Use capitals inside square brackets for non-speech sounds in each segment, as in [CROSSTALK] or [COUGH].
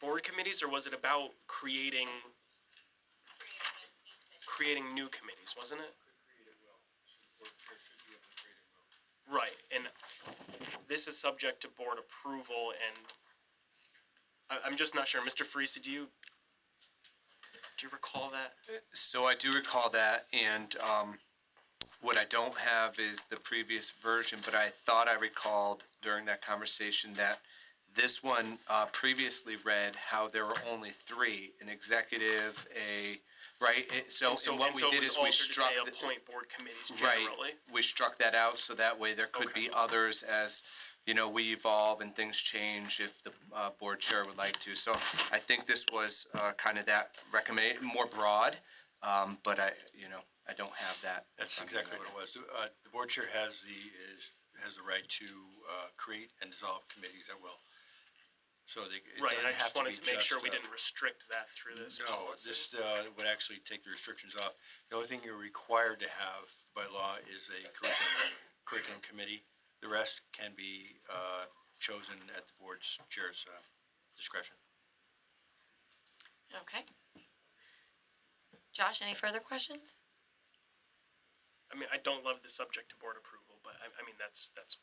board committees, or was it about creating, creating new committees, wasn't it? Right, and this is subject to board approval, and I, I'm just not sure. Mr. Freeze, did you, do you recall that? So I do recall that, and um, what I don't have is the previous version, but I thought I recalled during that conversation that this one uh, previously read how there were only three, an executive, a, right? It- So, And so, and what and we so it did was is we altered to struck. say the- appoint board committees generally. Right, we struck that out, so that way there could Okay. be others as, you know, we evolve and things change if the uh, board chair would like to. So I think this was uh, kind of that recommend, more broad, um, but I, you know, I don't have that. That's exactly what it was. Uh, the board chair has the, is, has the right to, uh, create and dissolve committees at will. So they, it Right, and I doesn't just have to be wanted just. to make sure we uh, didn't restrict that through this No, policy. this, uh, would actually take the restrictions off. The only thing you're required to have by law is a curriculum, curriculum committee. The rest can be, uh, chosen at the board's chair's, uh, discretion. Okay. Josh, any further questions? I mean, I don't love the subject to board approval, but I, I mean, that's, that's,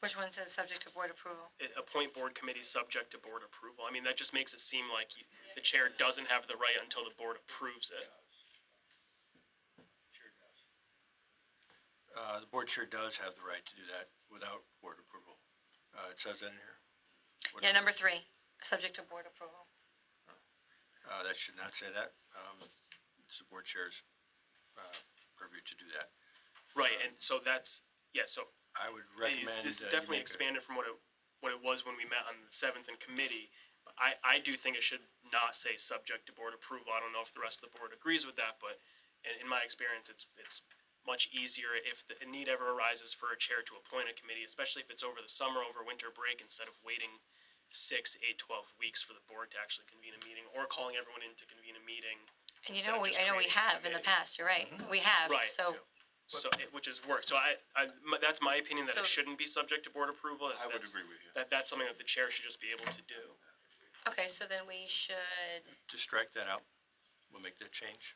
Which one says subject to board approval? it- appoint board committees subject to board approval. I mean, that just makes it seem like you- the chair doesn't have the right until the board approves it. Uh, the board chair does have the right to do that without board approval. Uh, it says that in here. Yeah, number three, subject to board approval. Uh, that should not say that. Um, it's the board chair's, uh, purview to do that. Right, and so that's, yeah, so I would recommend. it's, this uh, is you definitely make a- expanded from what it, what it was when we met on the seventh in committee. But I, I do think it should not say subject to board approval. I don't know if the rest of the board agrees with that, but in, in my experience, it's, it's much easier if the need ever arises for a chair to appoint a committee, especially if it's over the summer, over winter break, instead of waiting six, eight, twelve weeks for the board to actually convene a meeting or calling everyone in to convene a meeting. And you instead know, of we, just I know we creating a have in the committee. past, you're Mm-hmm. right, we have, Right. so, So, it- which has worked. So I, I, my- that's my opinion that So- it shouldn't be subject to board approval. I would That's- agree with you. That, that's something that the chair should just be able to do. okay, so then we should, Just strike that out. We'll make that change.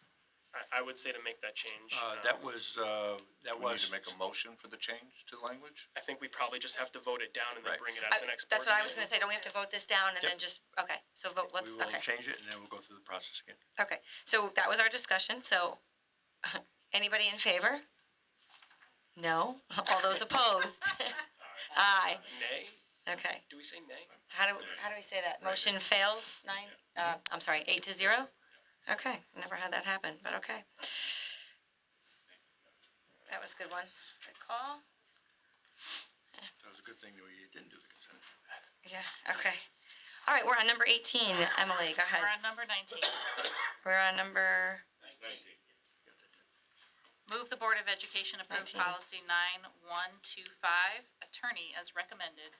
I, I would say to make that change. Uh, um, that was, uh, that We need was. to make a motion for the change to language? I think we probably just have to vote it down and then Right. bring it out I- to the next board. that's what I was gonna meeting. say, don't we have to vote this down and Yep. then just, okay, so vote, let's, We okay. will change it and then we'll go through the process again. Okay, so that was our discussion, so [LAUGHS] anybody in favor? No? [LAUGHS] All those opposed? [LAUGHS] Aye, Nay? okay. Do we say nay? How do, how do we say that? Motion fails nine, uh, I'm sorry, eight to zero? Okay, never had that happen, but okay. That was a good one. Good call. That was a good thing that we didn't do the consent. Yeah, okay. All right, we're on number eighteen. Emily, go ahead. We're on number nineteen. We're on number, Move the Board of Education approve 19. policy nine one two five, attorney as recommended.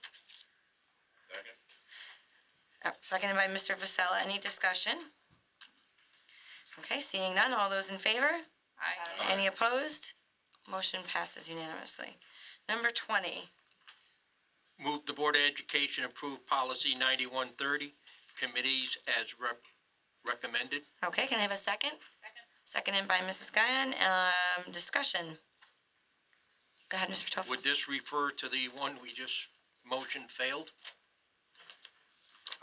oh, seconded by Mr. Vasella. Any discussion? Okay, seeing none. All those in favor? Aye. Any opposed? Motion passes unanimously. Number twenty, Move the Board of Education approve policy ninety-one thirty, committees as rep- recommended. okay, can I have a second? Second. Seconded by Mrs. Guyon, um, discussion. Go ahead, Mr. Toffel. Would this refer to the one we just motion failed?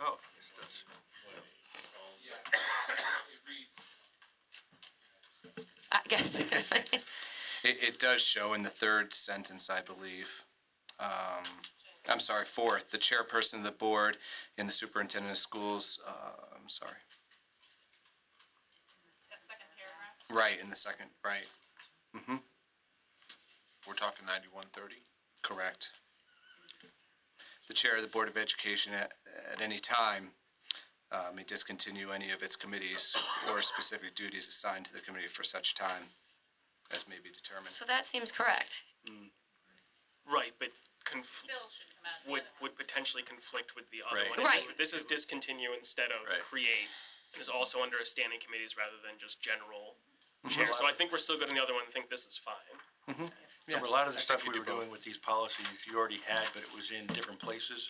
Oh, yes, it does. I guess, It, it does show in the third sentence, I believe. Um, I'm sorry, fourth, the chairperson of the board and the superintendent of schools, uh, I'm sorry. Second paragraph. Right, in the second, right, Mm-hmm. We're talking ninety-one thirty? Correct. The chair of the Board of Education at, at any time uh, may discontinue any of its committees or specific duties assigned to the committee for such time as may be determined. [LAUGHS] so that seems correct. Right, but conf- Still should come out. of the would, other one. would potentially conflict with the other Right. one. And this- Right. This is discontinue instead of Right. create. It is also under a standing committees rather than just general chair. So I think we're still good on the other one. I think this is fine. Remember, a lot of the I stuff think we you were do both. doing with these policies, you already had, but it was in different places.